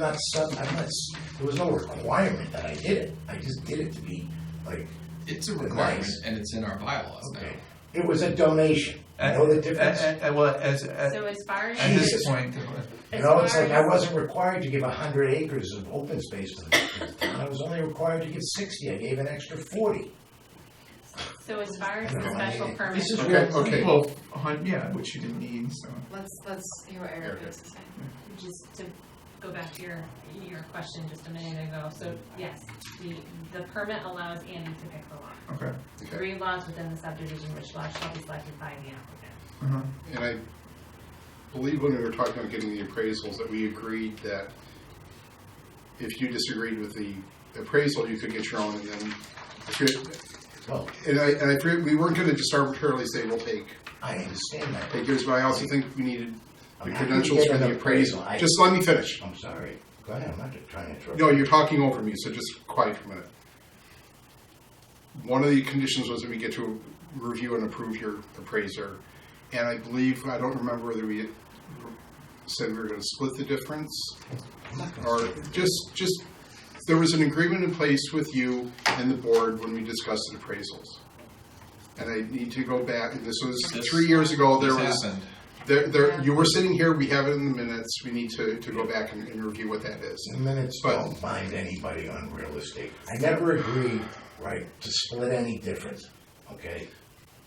not sudden, I'm not, s- there was no requirement that I did it, I just did it to be, like, It's a requirement Nice. and it's in our bylaws now. okay. It was a donation, you know the difference? And- and- and well, as, at, So as far at as, this Jesus. point, uh, You as know, it's far like I as- wasn't required to give a hundred acres of open space to the to the town, I was only required to give sixty, I gave an extra forty. so as far as I the don't know, I special mean, permit, This is Okay, real. okay. well, a hun- yeah, which you didn't need, so. Let's, let's hear what Eric has to say. just to go back to your, your question just a minute ago, so yes, the, the permit allows Andy to pick the lot. Okay. Okay. Three lots within the subdivision, which lot shall be selected by the applicant. uh-huh. And I believe when we were talking about getting the appraisals, that we agreed that if you disagreed with the appraisal, you could get your own, and then, if you- Well, and I, and I, figured we weren't gonna just arbitrarily say, we'll take, I understand that. take yours, but I also think we needed the I'm happy to credentials get for an the appraisal. I- Just let me finish. I'm sorry, go ahead, I'm not trying to interrupt. No, you're talking over me, so just quiet for a minute. One of the conditions was that we get to review and approve your appraiser, and I believe, I don't remember whether we said we were gonna split the difference, I'm not gonna or just, just, there was an agreement in place with you and the board when we discussed the appraisals. And I need to go back, this was three years ago, there This was, happened. there, there, you were sitting here, we have it in the minutes, we need to, to go back and, and review what that is. The minutes But- don't bind anybody on real estate. I never agreed, right, to split any difference, okay?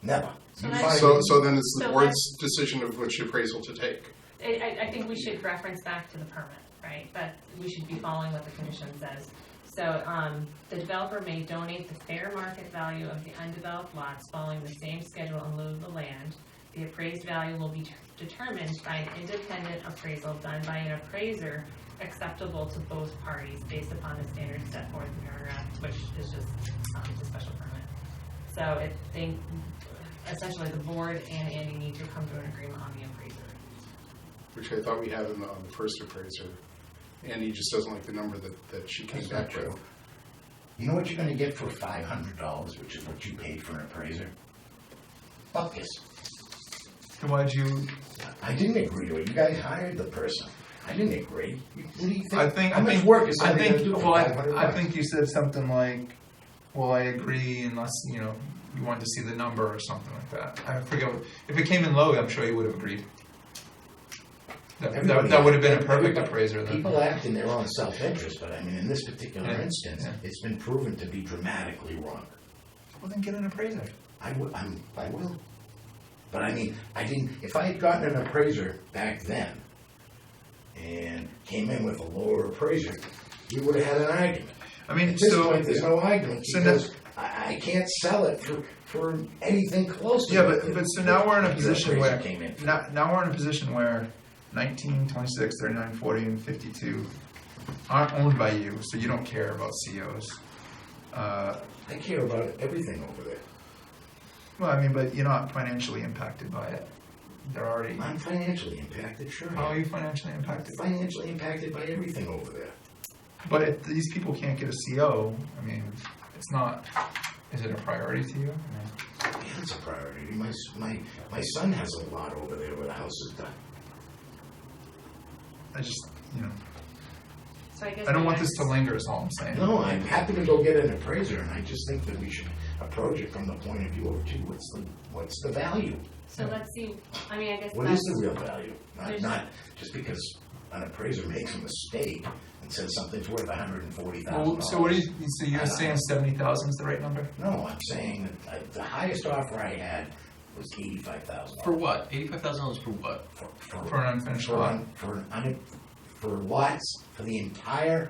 Never. So You that's- find So, me- so then it's the So board's decision of which appraisal to take. I, I, I think we should reference back to the permit, right? But we should be following what the condition says. So, um, the developer may donate the fair market value of the undeveloped lots following the same schedule in lieu of the land. The appraised value will be ter- determined by an independent appraisal done by an appraiser acceptable to both parties based upon the standards set forth in paragraph, which is just, um, the special permit. So it, they, essentially the board and Andy need to come to an agreement on the appraiser. which I thought we had in the the first appraiser. Andy just doesn't like the number that, that she came That's not back with. true. You know what you're gonna get for five hundred dollars, which is what you paid for an appraiser? Buckets. And why'd you, I didn't agree to it. You guys hired the person. I didn't agree. You- What do you think? I think, How I much think, work is I somebody gonna do think, for well, I, 500 I bucks? think you said something like, well, I agree unless, you know, you wanted to see the number or something like that. I forget, what- if it came in low, I'm sure you would have agreed. That, that, Everybody- that would have been a perfect everybody- appraiser then. People act in their own self-interest, but I mean, in this particular Yeah, instance, yeah. it's been proven to be dramatically wrong. Well, then get an appraiser. I will, I'm, I will. But I mean, I didn't, if I had gotten an appraiser back then and came in with a lower appraiser, we would have had an argument. I mean, At this so. point, there's no argument so now- because I, I can't sell it for, for anything close to. Yeah, what but- the- but so now we're in a your position appraiser where- Came in. Now, now we're in a position where 19, 26, 39, 40, and 52 aren't owned by you, so you don't care about COs. Uh, I care about everything over there. well, I mean, but you're not financially impacted by it. They're already. I'm financially impacted, sure. I How are am. you financially impacted? Financially impacted by everything over there. But if these people can't get a CO, I mean, it's not. Is it a priority to you? I mean, Yeah, it's a priority. My, s- my, my son has a lot over there where the house is done. I just, you know, So I guess. I don't my want this next- to linger, is all I'm saying. No, I'm happy to go get an appraiser, and I just think that we should approach it from the point of view of, gee, what's the, what's the value? So let's see, I mean, I guess What is that's, the real value? Not, There's- not just because an appraiser makes a mistake and says something's worth a hundred and forty thousand Well, dollars. so what do you? So you're saying 70,000 is the right number? No, I'm saying that I- the highest offer I had was eighty-five thousand For dollars. what? Eighty-five thousand dollars for what? For an unfinished For, lot. un- for, an un- for lots, for the entire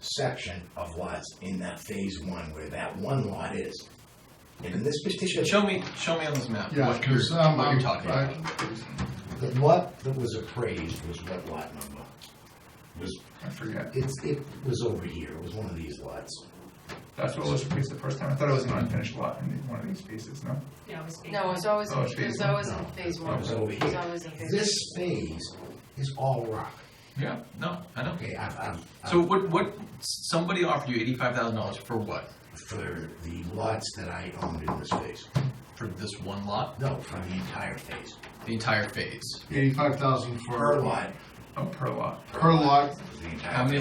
section of lots in that phase one where that one lot is. And in this particular. Show me, show me on this map Yeah, what you're, 'cause, um, what you're I- talking I- about. The lot that was appraised was what lot number? Was, I forget. it's, it was over here, it was one of these lots. That's what was released the first time. I thought it was an unfinished lot in one of these pieces, no? you know, speaking. No, it was always, Oh, it it's phase was one. always in phase It one. was over It was here. always in phase one. This phase is all rock. Yeah, no, I know. Okay, I've, I've, So what, what, somebody offered you eighty-five thousand dollars for what? for the lots that I owned in this phase, For this one lot? no, for the entire phase, The entire phase? Eighty-five thousand for. per lot, Oh, per lot. per Per lot. lot. for the entire How many